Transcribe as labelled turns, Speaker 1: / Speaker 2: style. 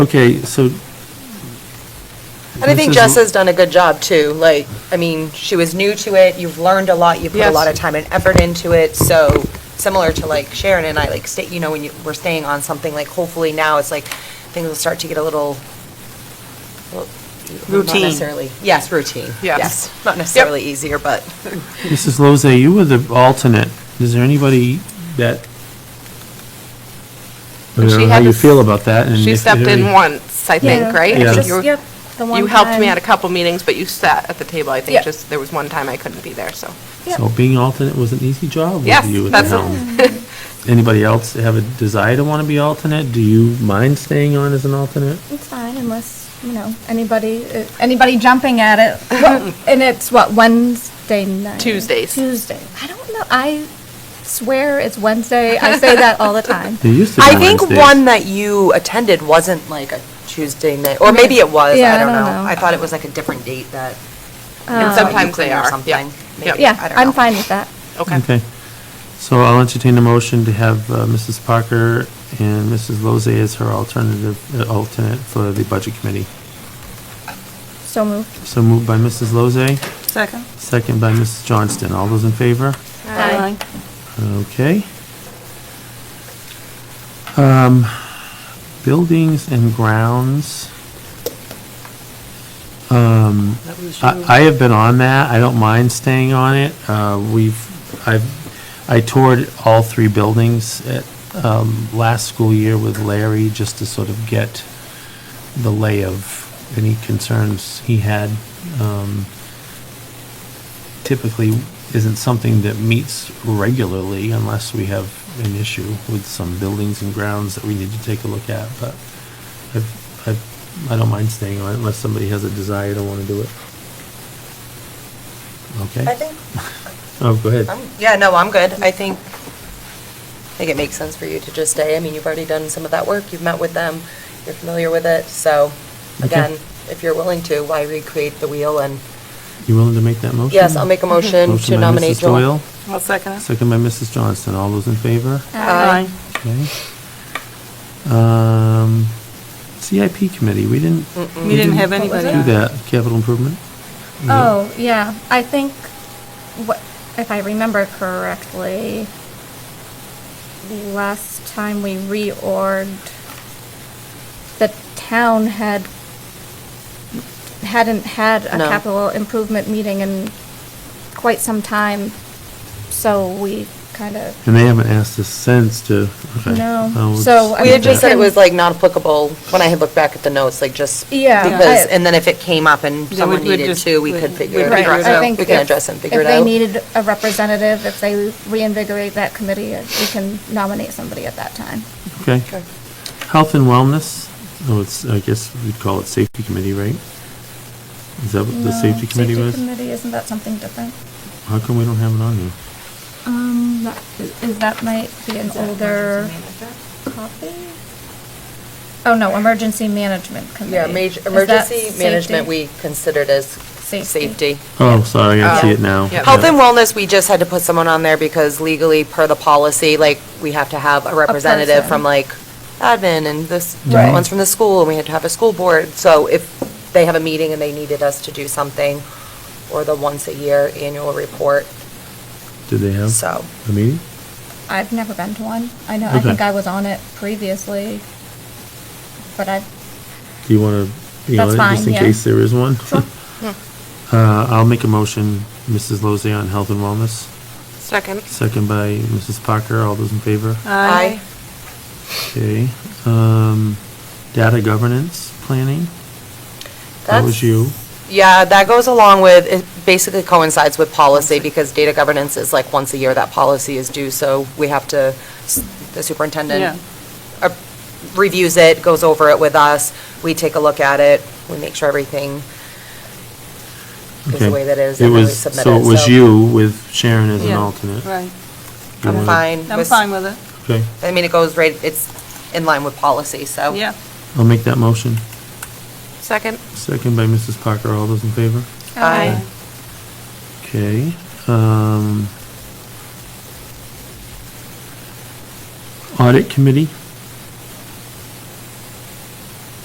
Speaker 1: Okay, so.
Speaker 2: And I
Speaker 1: this
Speaker 2: think
Speaker 1: is-
Speaker 2: Jess has done a good job, too. Like, I mean, she was new to it, you've learned a lot, you put a
Speaker 3: Yes.
Speaker 2: lot of time and effort into it, so similar to like Sharon and I, like, stay, you know, when you, we're staying on something, like, hopefully now it's like, things will start to get a little, well,
Speaker 3: Routine.
Speaker 2: Not necessarily, yes, routine.
Speaker 3: Yes.
Speaker 2: Not necessarily easier, but.
Speaker 1: Mrs. Lozay, you were the alternate. Is there anybody that? I
Speaker 3: She
Speaker 1: don't know how
Speaker 3: had
Speaker 1: you
Speaker 3: to s-
Speaker 1: feel about that. and
Speaker 3: She
Speaker 1: if-
Speaker 3: stepped in
Speaker 1: if-
Speaker 3: once, I think, right? I
Speaker 1: Yeah.
Speaker 3: think
Speaker 1: just-
Speaker 3: you were-
Speaker 4: Yep, the one
Speaker 3: You helped me
Speaker 4: time.
Speaker 3: at a couple meetings, but you sat at the table, I think,
Speaker 4: Yeah.
Speaker 3: just, there was one time I couldn't be there, so.
Speaker 1: So being alternate was an easy job
Speaker 3: Yes,
Speaker 1: with you at the
Speaker 3: that's-
Speaker 1: helm. Anybody else have a desire to want to be alternate? Do you mind staying on as an alternate?
Speaker 4: It's fine unless, you know, anybody, uh, anybody jumping at it. And it's what, Wednesday night?
Speaker 3: Tuesdays.
Speaker 4: Tuesday. I don't know, I swear it's Wednesday. I say that all the time.
Speaker 1: They used to be
Speaker 2: I think
Speaker 1: Wednesdays.
Speaker 2: one that you attended wasn't like a Tuesday night, or maybe it was,
Speaker 4: Yeah,
Speaker 2: I don't know. I thought it was like a different date that.
Speaker 4: Uh,
Speaker 3: And sometimes they
Speaker 2: Ukraine or
Speaker 3: are, yeah.
Speaker 2: something.
Speaker 3: Yep.
Speaker 2: Maybe.
Speaker 4: Um, Yeah,
Speaker 2: I don't know.
Speaker 4: I'm fine with that.
Speaker 3: Okay.
Speaker 1: Okay. So I'll entertain a motion to have uh, Mrs. Parker and Mrs. Lozay as her alternative, uh, alternate for the Budget Committee.
Speaker 4: So moved.
Speaker 1: So moved by Mrs. Lozay,
Speaker 3: Second.
Speaker 1: second by Mrs. Johnston. All those in favor?
Speaker 4: Aye.
Speaker 1: Okay. Um, Buildings and grounds. Um, I I have been on that. I don't mind staying on it. Uh, We've, I've, I toured all three buildings at um, last school year with Larry just to sort of get the lay of any concerns he had. Um, typically isn't something that meets regularly unless we have an issue with some buildings and grounds that we need to take a look at, but I've, I've, I don't mind staying on it unless somebody has a desire to want to do it.
Speaker 2: I
Speaker 1: Okay?
Speaker 2: think,
Speaker 1: Oh, go ahead.
Speaker 2: I'm, yeah, no, I'm good. I think, I think it makes sense for you to just stay. I mean, you've already done some of that work, you've met with them, you're familiar with it, so,
Speaker 1: Okay.
Speaker 2: again, if you're willing to, why recreate the wheel? And,
Speaker 1: You willing to make that motion?
Speaker 2: yes, I'll make a motion
Speaker 1: Motion
Speaker 2: to
Speaker 1: by
Speaker 2: nominate
Speaker 1: Mrs.
Speaker 2: Joel.
Speaker 1: Doyle, second by Mrs. Johnston. All those in favor?
Speaker 2: Aye.
Speaker 1: Okay. Um, CIP committee, we didn't.
Speaker 5: We didn't have
Speaker 4: What was
Speaker 5: anybody
Speaker 4: it?
Speaker 1: Do
Speaker 5: on.
Speaker 1: that, capital improvement?
Speaker 2: Mm-hmm.
Speaker 4: Oh, yeah, I think, what, if I remember correctly, the last time we reorged, the town had, hadn't had a
Speaker 2: No.
Speaker 4: capital improvement meeting in quite some time, so we kind of,
Speaker 1: And they haven't asked us since to. okay.
Speaker 4: No.
Speaker 1: Oh, it's-
Speaker 4: So, I
Speaker 2: We had
Speaker 4: mean,
Speaker 2: just said it
Speaker 4: can-
Speaker 2: was like not applicable, when I had looked back at the notes, like just
Speaker 4: Yeah,
Speaker 2: because,
Speaker 4: I-
Speaker 2: and then if it came up and
Speaker 5: Then
Speaker 2: someone
Speaker 5: we'd- we'd
Speaker 2: needed
Speaker 5: just-
Speaker 2: to, we could
Speaker 5: we'd-
Speaker 2: figure
Speaker 5: we'd
Speaker 2: it
Speaker 4: right,
Speaker 5: figure it
Speaker 4: I
Speaker 5: out.
Speaker 2: out.
Speaker 4: think
Speaker 2: We can
Speaker 4: if-
Speaker 2: address and figure it out.
Speaker 4: If they needed a representative, if they reinvigorate that committee, we can nominate somebody at that time.
Speaker 1: Okay.
Speaker 2: Okay.
Speaker 1: Health and wellness, oh, it's, I guess we'd call it safety committee, right? Is that what the safety committee was?
Speaker 4: isn't that something different?
Speaker 1: How come we don't have it on here?
Speaker 4: Um, that, is that might be an older copy? Oh, no, emergency management committee.
Speaker 2: Yeah,
Speaker 4: Is
Speaker 2: major,
Speaker 4: that
Speaker 2: emergency management,
Speaker 4: safety?
Speaker 2: we considered as
Speaker 4: Safety.
Speaker 2: safety.
Speaker 1: Oh, sorry, I see it now.
Speaker 3: Yeah.
Speaker 2: Uh, Health and wellness, we just had to put someone on there because legally, per the policy, like, we have to have a representative
Speaker 4: person.
Speaker 2: from like admin and this,
Speaker 4: Right.
Speaker 2: different ones from the school, and we had to have a school board. So if they have a meeting and they needed us to do something, or the once a year annual report,
Speaker 1: Do they have
Speaker 2: so.
Speaker 1: a meeting?
Speaker 4: I've never been to one. I know, I
Speaker 1: Okay.
Speaker 4: think I was on it previously, but I,
Speaker 1: Do you want to be on
Speaker 4: That's
Speaker 1: it, just
Speaker 4: fine,
Speaker 1: in
Speaker 4: yeah.
Speaker 1: case there is one? Uh, I'll make a motion, Mrs. Lozay on health and wellness,
Speaker 3: Second.
Speaker 1: second by Mrs. Parker, all those in favor?
Speaker 2: Aye.
Speaker 1: Okay, um, data governance planning? That was
Speaker 2: That's-
Speaker 1: you.
Speaker 2: Yeah, that goes along with, it basically coincides with policy because data governance is like once a year that policy is due, so we have to, the
Speaker 5: Yeah.
Speaker 2: superintendent uh, reviews it, goes over it with us, we take a look at it, we make sure everything is
Speaker 1: Okay.
Speaker 2: the way that it is, and then we
Speaker 1: was-
Speaker 2: submit it.
Speaker 1: So it was you with Sharon as an
Speaker 5: Yeah,
Speaker 1: alternate?
Speaker 5: Right.
Speaker 1: You
Speaker 2: I'm
Speaker 1: wanna-
Speaker 2: fine.
Speaker 5: I'm fine with it.
Speaker 1: Okay,
Speaker 2: I mean, it goes right, it's in line with policy, so.
Speaker 5: Yeah.
Speaker 1: I'll make that motion.
Speaker 3: Oh. Second.
Speaker 1: Second by Mrs. Parker, all those in favor?
Speaker 2: Aye.
Speaker 1: Okay, um. Audit committee,